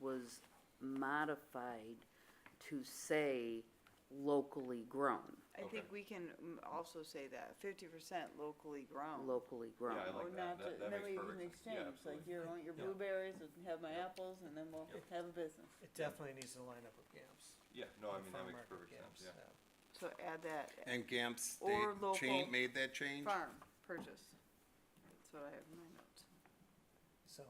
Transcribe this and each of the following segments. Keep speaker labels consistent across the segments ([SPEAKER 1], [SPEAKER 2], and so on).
[SPEAKER 1] was modified to say locally grown,
[SPEAKER 2] I think we can mm, also say that, fifty percent locally grown.
[SPEAKER 1] locally grown.
[SPEAKER 3] I like that.
[SPEAKER 4] Or Oh, not,
[SPEAKER 3] That-
[SPEAKER 4] to-
[SPEAKER 3] that
[SPEAKER 4] that
[SPEAKER 3] makes
[SPEAKER 4] way you can
[SPEAKER 3] perfect sense. Yeah,
[SPEAKER 4] exchange, like
[SPEAKER 3] absolutely.
[SPEAKER 4] here, I want your
[SPEAKER 3] Yeah.
[SPEAKER 4] blueberries and have my apples and then we'll
[SPEAKER 3] Yep.
[SPEAKER 4] have a business.
[SPEAKER 5] It definitely needs to line up with GAMS.
[SPEAKER 3] Yeah, no, I
[SPEAKER 5] or
[SPEAKER 3] mean, that
[SPEAKER 5] farm
[SPEAKER 3] makes
[SPEAKER 5] market
[SPEAKER 3] perfect
[SPEAKER 5] GAMS,
[SPEAKER 3] sense, yeah.
[SPEAKER 2] So add that,
[SPEAKER 6] And GAMP's, they
[SPEAKER 2] Or local
[SPEAKER 6] cha- made that change?
[SPEAKER 2] farm purchase. That's what I have in my notes.
[SPEAKER 5] So,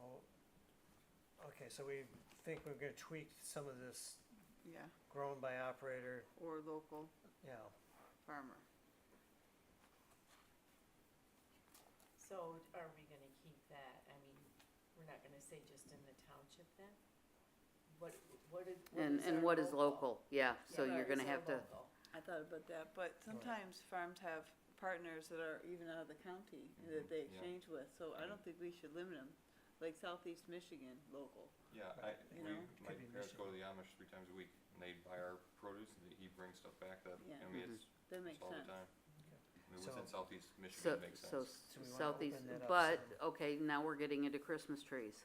[SPEAKER 5] okay, so we think we're gonna tweak some of this
[SPEAKER 2] Yeah,
[SPEAKER 5] grown by operator,
[SPEAKER 2] or local
[SPEAKER 5] you know,
[SPEAKER 2] farmer.
[SPEAKER 7] So are we gonna keep that, I mean, we're not gonna say just in the township then? What, what is, what is
[SPEAKER 1] And, and
[SPEAKER 7] our
[SPEAKER 1] what is local? Yeah, so
[SPEAKER 7] What
[SPEAKER 1] you're
[SPEAKER 7] is
[SPEAKER 1] gonna
[SPEAKER 7] our
[SPEAKER 1] have to,
[SPEAKER 7] local?
[SPEAKER 4] I thought about that, but
[SPEAKER 5] sometimes
[SPEAKER 4] sometimes farms have partners that are even out of the county that they
[SPEAKER 3] Mhm, yeah.
[SPEAKER 4] exchange with, so I don't think we should limit them. Like Southeast Michigan, local.
[SPEAKER 3] Yeah, I,
[SPEAKER 5] Right.
[SPEAKER 4] You
[SPEAKER 3] we,
[SPEAKER 4] know?
[SPEAKER 3] my
[SPEAKER 5] Could be
[SPEAKER 3] parents go to the Amish three times a week, and they buy our produce, and he brings stuff back that,
[SPEAKER 4] Yeah.
[SPEAKER 3] I mean, it's,
[SPEAKER 4] That
[SPEAKER 3] it's
[SPEAKER 4] makes
[SPEAKER 3] all the
[SPEAKER 4] sense.
[SPEAKER 3] time. I mean, within
[SPEAKER 5] So-
[SPEAKER 3] southeast
[SPEAKER 1] so,
[SPEAKER 3] Michigan makes sense.
[SPEAKER 1] so
[SPEAKER 5] So we wanna
[SPEAKER 1] southeast,
[SPEAKER 5] open that up
[SPEAKER 1] but,
[SPEAKER 5] some.
[SPEAKER 1] okay, now we're getting into Christmas trees.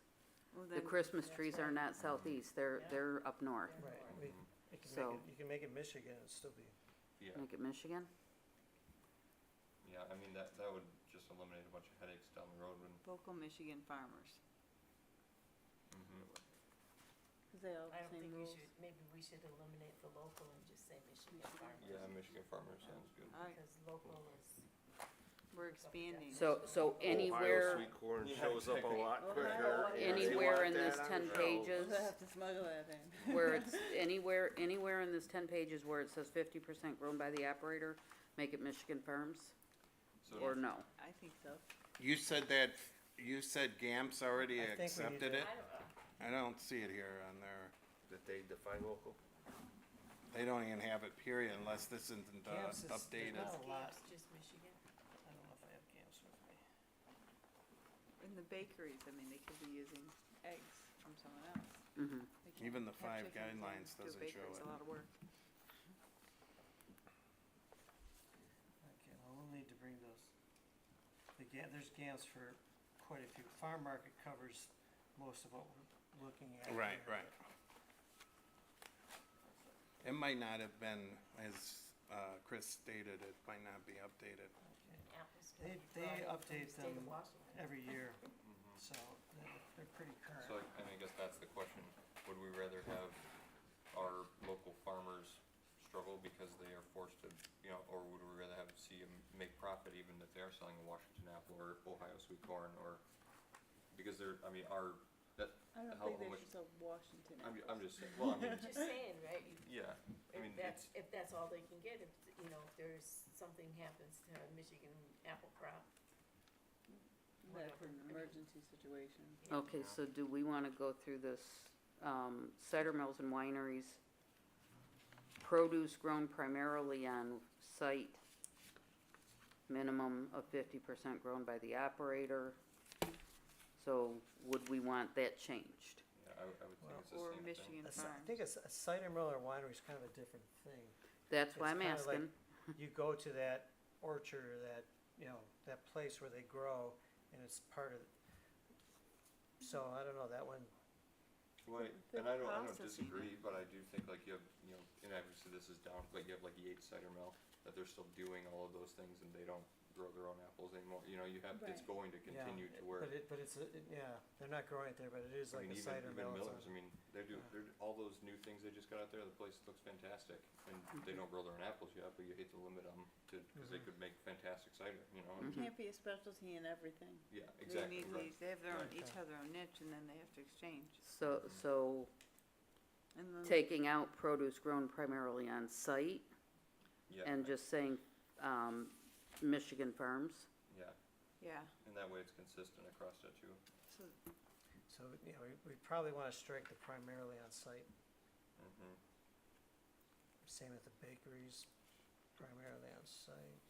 [SPEAKER 2] Well,
[SPEAKER 1] The
[SPEAKER 2] then,
[SPEAKER 1] Christmas
[SPEAKER 7] that's
[SPEAKER 1] trees are
[SPEAKER 7] right.
[SPEAKER 1] not southeast, they're,
[SPEAKER 7] Yeah.
[SPEAKER 1] they're up north.
[SPEAKER 5] right,
[SPEAKER 7] Mhm.
[SPEAKER 5] we,
[SPEAKER 3] Mhm.
[SPEAKER 5] you can
[SPEAKER 1] So-
[SPEAKER 5] make it, you can make it Michigan and still be,
[SPEAKER 3] Yeah,
[SPEAKER 1] Make it Michigan?
[SPEAKER 3] yeah, I mean, that, that would just eliminate a bunch of headaches down the road when,
[SPEAKER 2] local Michigan farmers.
[SPEAKER 4] Mm-hmm.
[SPEAKER 3] mhm.
[SPEAKER 4] Cause they all
[SPEAKER 7] I
[SPEAKER 4] have the
[SPEAKER 7] don't
[SPEAKER 4] same
[SPEAKER 7] think we
[SPEAKER 4] rules.
[SPEAKER 7] should, maybe we should eliminate the local and just say Michigan
[SPEAKER 4] Michigan.
[SPEAKER 7] farmers.
[SPEAKER 3] yeah, Michigan farmer sounds good.
[SPEAKER 2] All right,
[SPEAKER 7] Because local is,
[SPEAKER 2] we're expanding.
[SPEAKER 1] So, so
[SPEAKER 3] Oh,
[SPEAKER 5] Oh,
[SPEAKER 1] anywhere,
[SPEAKER 8] Ohio sweet corn
[SPEAKER 3] Yeah,
[SPEAKER 8] shows up a
[SPEAKER 3] exactly.
[SPEAKER 8] lot
[SPEAKER 4] Ohio
[SPEAKER 8] quicker.
[SPEAKER 4] sweet
[SPEAKER 8] and they want
[SPEAKER 1] anywhere in
[SPEAKER 8] that
[SPEAKER 1] this
[SPEAKER 8] on
[SPEAKER 1] 10
[SPEAKER 8] shelves.
[SPEAKER 1] pages.
[SPEAKER 4] We'll have to smuggle that in.
[SPEAKER 1] where it's, anywhere, anywhere in this ten pages where it says fifty percent grown by the operator, make it Michigan firms,
[SPEAKER 3] So
[SPEAKER 1] or no?
[SPEAKER 2] I think so.
[SPEAKER 6] You said that, you said GAMP's already
[SPEAKER 5] I think we need
[SPEAKER 6] accepted
[SPEAKER 5] to-
[SPEAKER 6] it?
[SPEAKER 7] I don't know.
[SPEAKER 6] I don't see it here on there.
[SPEAKER 8] That they define local.
[SPEAKER 6] They don't even have it period unless this isn't uh,
[SPEAKER 5] GAMS is-
[SPEAKER 6] updated.
[SPEAKER 5] Not a lot.
[SPEAKER 7] It's just Michigan.
[SPEAKER 5] I don't know if I have GAMS with me.
[SPEAKER 2] In the bakeries, I mean, they could be using eggs from someone else.
[SPEAKER 1] Mhm.
[SPEAKER 2] They can't
[SPEAKER 6] Even the
[SPEAKER 2] have
[SPEAKER 6] five
[SPEAKER 2] chickens and
[SPEAKER 6] guidelines
[SPEAKER 2] do a
[SPEAKER 6] doesn't
[SPEAKER 2] bakery.
[SPEAKER 6] show
[SPEAKER 2] It's
[SPEAKER 6] it.
[SPEAKER 2] a lot of work.
[SPEAKER 5] Okay, well, we'll need to bring those, the ga- there's GAMS for quite a few, farm market covers most of what we're looking at here.
[SPEAKER 6] Right, right. It might not have been, as uh, Chris stated, it might not be updated.
[SPEAKER 5] Okay.
[SPEAKER 7] Apples can
[SPEAKER 5] They-
[SPEAKER 7] be
[SPEAKER 5] they
[SPEAKER 7] brought in from
[SPEAKER 5] update
[SPEAKER 7] the state of
[SPEAKER 5] them
[SPEAKER 7] Washington.
[SPEAKER 5] every year,
[SPEAKER 3] Mm-hmm.
[SPEAKER 5] so they're, they're pretty current.
[SPEAKER 3] So I, I mean, I guess that's the question, would we rather have our local farmers struggle because they are forced to, you know, or would we rather have, see them make profit even if they are selling a Washington apple or Ohio sweet corn or, because they're, I mean, our, that,
[SPEAKER 4] I don't
[SPEAKER 3] How- how
[SPEAKER 4] think they
[SPEAKER 3] much-
[SPEAKER 4] should sell Washington
[SPEAKER 3] I'm,
[SPEAKER 4] apples.
[SPEAKER 3] I'm just saying, well, I mean,
[SPEAKER 7] Just saying, right,
[SPEAKER 3] yeah,
[SPEAKER 7] you
[SPEAKER 3] I mean,
[SPEAKER 7] If
[SPEAKER 3] it's,
[SPEAKER 7] that's, if that's all they can get, if, you know, if there's, something happens to a Michigan apple crop.
[SPEAKER 4] That's an
[SPEAKER 7] whatever.
[SPEAKER 4] emergency situation.
[SPEAKER 1] Okay, so do we wanna go through this, um, cider mills and wineries? Produce grown primarily on site, minimum of fifty percent grown by the operator. So would we want that changed?
[SPEAKER 3] yeah, I, would- I would think
[SPEAKER 5] Well,
[SPEAKER 3] it's the
[SPEAKER 2] Or
[SPEAKER 3] same thing.
[SPEAKER 2] Michigan
[SPEAKER 5] A ci- I
[SPEAKER 2] farms.
[SPEAKER 5] think a, c- a cider mill or winery is kind of a different thing.
[SPEAKER 1] That's why
[SPEAKER 5] It's
[SPEAKER 1] I'm
[SPEAKER 5] kinda like-
[SPEAKER 1] asking.
[SPEAKER 5] You go to that orchard or that, you know, that place where they grow and it's part of, so I don't know, that one,
[SPEAKER 3] Well, I-
[SPEAKER 2] the
[SPEAKER 3] and I don't, I don't
[SPEAKER 2] processing.
[SPEAKER 3] disagree, but I do think like you have, you know, and obviously this is down, but you have like Yates Cider Mill, that they're still doing all of those things and they don't grow their own apples anymore, you know, you have, it's
[SPEAKER 4] Right.
[SPEAKER 3] going to
[SPEAKER 5] Yeah,
[SPEAKER 3] continue to where.
[SPEAKER 5] but it, but it's, a- it- yeah, they're not growing it there, but it is
[SPEAKER 3] I
[SPEAKER 5] like
[SPEAKER 3] mean,
[SPEAKER 5] a
[SPEAKER 3] even,
[SPEAKER 5] cider
[SPEAKER 3] even
[SPEAKER 5] mill. it's
[SPEAKER 3] Miller's,
[SPEAKER 5] on-
[SPEAKER 3] I mean, they're doing,
[SPEAKER 5] Yeah.
[SPEAKER 3] they're, all those new things they just got out there, the place looks fantastic, and they don't grow their own apples yet, but you hate to limit them to, cause they
[SPEAKER 5] Mhm.
[SPEAKER 3] could make fantastic cider, you know,
[SPEAKER 1] Mhm.
[SPEAKER 3] and,
[SPEAKER 4] Can't be a specialty in everything.
[SPEAKER 1] Mm-hmm.
[SPEAKER 3] yeah,
[SPEAKER 2] They
[SPEAKER 3] exactly,
[SPEAKER 2] need
[SPEAKER 3] right.
[SPEAKER 2] these, they have their own,
[SPEAKER 3] Right.
[SPEAKER 2] each have their own niche and then they have to exchange.
[SPEAKER 1] So,
[SPEAKER 5] Mhm.
[SPEAKER 1] so
[SPEAKER 2] And then
[SPEAKER 1] taking out produce grown primarily on site
[SPEAKER 3] Yeah,
[SPEAKER 1] and just saying, um, Michigan farms?
[SPEAKER 3] yeah,
[SPEAKER 2] Yeah,
[SPEAKER 3] and that way it's consistent across that too.
[SPEAKER 2] so
[SPEAKER 5] So, you know, we, we probably wanna strike the primarily on site,
[SPEAKER 3] Mhm.
[SPEAKER 5] same at the bakeries, primarily on site.